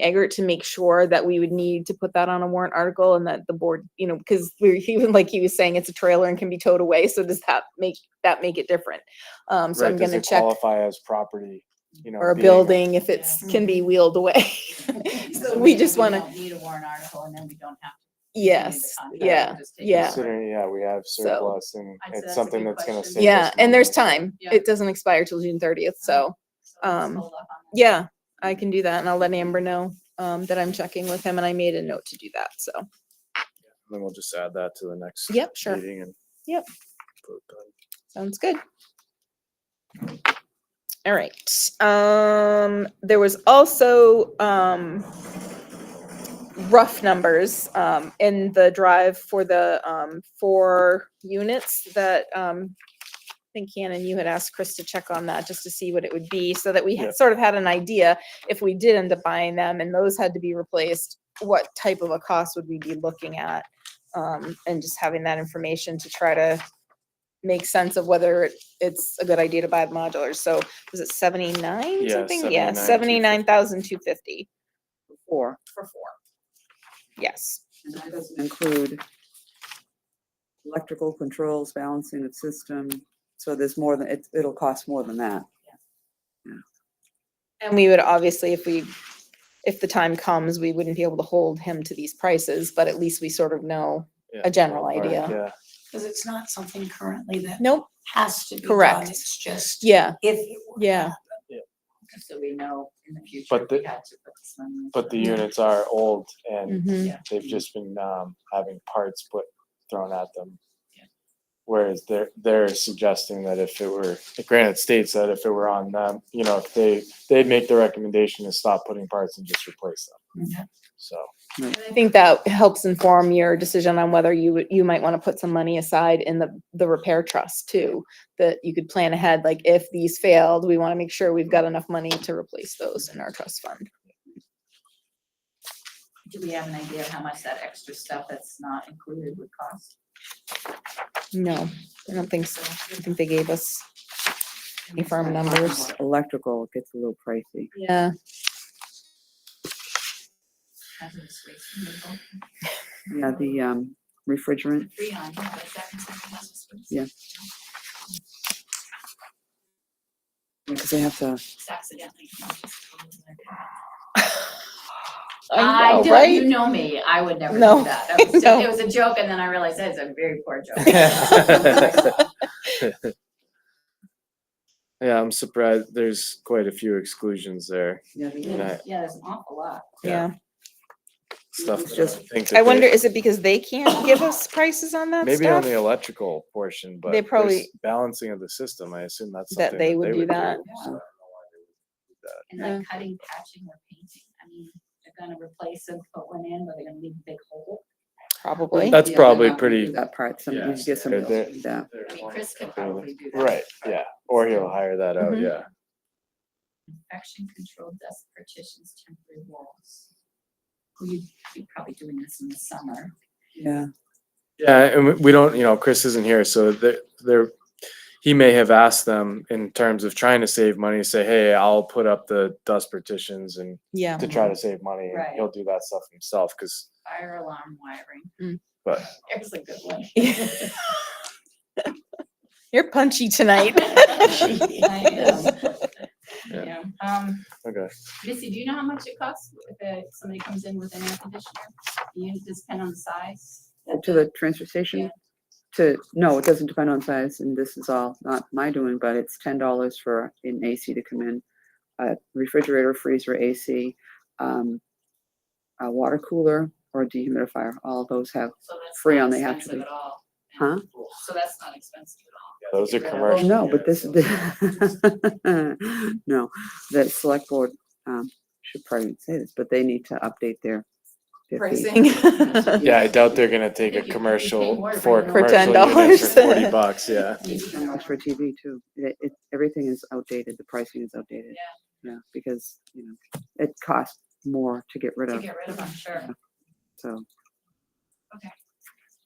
Eggert to make sure that we would need to put that on a warrant article and that the board, you know, because we're even like he was saying, it's a trailer and can be towed away. So does that make that make it different? Um, so Right, I'm does gonna it check Qualify as property, you know. or a being building if it's can be wheeled away. So we just wanna- to. Need a warrant article and then we don't have. to continue the yes. contract, we'll Yeah. just take it Yeah. over. Considering, yeah, we have surplus and I'd say that's it's a something good that's gonna question. save. Yeah. us And there's money. time. Yeah. It doesn't expire till June thirtieth. So So let's um, hold off on that. yeah, I can do that. And I'll let Amber know um, that I'm checking with him and I made a note to do that. So Then we'll just add that to the next. Yep, sure. meeting and Yep. vote on it. Sounds good. All right, um, there was also, um, rough numbers, um, in the drive for the, um, four units that, um, I think Shannon, you had asked Chris to check on that just to see what it would be, so that we Yeah. had sort of had an idea if we did end up buying them and those had to be replaced, what type of a cost would we be looking at? Um, and just having that information to try to make sense of whether it- it's a good idea to buy modulars. So was it seventy-nine Yeah, something? Yeah, 79,250. seventy-nine thousand two fifty four, for four. Yes, and that doesn't include electrical controls, balancing of system, so there's more than, it, it'll cost more than that. and we would obviously, if we, if the time comes, we wouldn't be able to hold him to these prices, but at least we sort of know. Yeah, A general ballpark, idea. Yeah, Because it's not something currently that Nope. has to be done. Correct. It's just Yeah, if it were. yeah, So we know in the future. But we the- had to put this one- but the units are old and mhm, Yeah. they've just been, um, having parts put, thrown at them. Yeah. Whereas they're, they're suggesting that if it were, granted states that if it were on them, you know, if they, they'd make the recommendation to stop putting parts and just replace Yeah. them. So. I think that helps inform your decision on whether you would, you might want to put some money aside in the, the repair trust too. That you could plan ahead, like if these failed, we want to make sure we've got enough money to replace those in our trust fund. Do we have an idea of how much that extra stuff that's not included would cost? No, I don't think so. I don't think they gave us any firm numbers. Electrical gets a little pricey. Yeah, Hazardous waste removal, Yeah, the, um, refrigerant, three on, but is that considered hazardous waste? Yeah. because they have to, It's accidentally. I know, I do, you right? know me, I would never No. do that. That was No. ju- It was a joke and then I realized that's a very poor joke. Yeah, I'm surprised. There's quite a few exclusions there. yeah, they- Yeah. Yeah, there's an awful lot. Yeah, Stuff It's that I just- would think. I that they- wonder, is it because they can't give us prices on that Maybe on stuff? the electrical portion, but. They there's probably- Balancing of the system, I assume that's That something. they would do that. so I don't know why they would do that. And like cutting, patching or painting, I mean, they're gonna replace and put one in, but they're gonna leave a big hole. Probably. That's yeah, they're probably not gonna do pretty- That part, some, you Yeah. get some, They're- they're- yeah, I mean, Chris could Completely. probably do that. Right, yeah, or he'll hire that out, Mhm. yeah. Infection control desk partitions, temporary walls. We'd be probably doing this in the summer. yeah, Yeah, and we- we don't, you know, Chris isn't here, so they're, they're, he may have asked them in terms of trying to save money, say, hey, I'll put up the dust partitions and Yeah, to try to save money, and Right. he'll do that stuff himself, cause Fire alarm wiring. Mm. But- There's a good one. you're punchy tonight. I know. Yeah, um, Okay. Missy, do you know how much it costs if uh, somebody comes in with an air conditioner? You just depend on the size? to the transfer station. Yeah. To, no, it doesn't depend on size, and this is all not my doing, but it's ten dollars for an AC to come in. A refrigerator, freezer, AC, um, a water cooler or dehumidifier, all those have So that's Free not on the app to expensive do. At all. Huh? So that's not expensive at all. Yeah, Those are Get rid of commercial. No, but this, units, the- no, the select board, um, should probably say this, but they need to update their. their fees. so- Yeah, I doubt they're gonna take a If you- if you pay commercial more for for a your- For commercial unit for $10. forty bucks, yeah. And that's For TV too, it, it, everything is outdated, the pricing is outdated. Yeah. because, you know, it costs more to get rid To of, get rid of, I'm sure. so. Okay. um,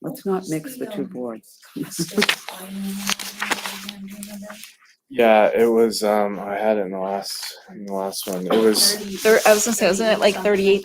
Let's not mix the two boards. Yeah, it was, um, I had it in the last, in the last one. It was. Thirty- Thir- I was gonna say, wasn't it like 38 something? thirty-eight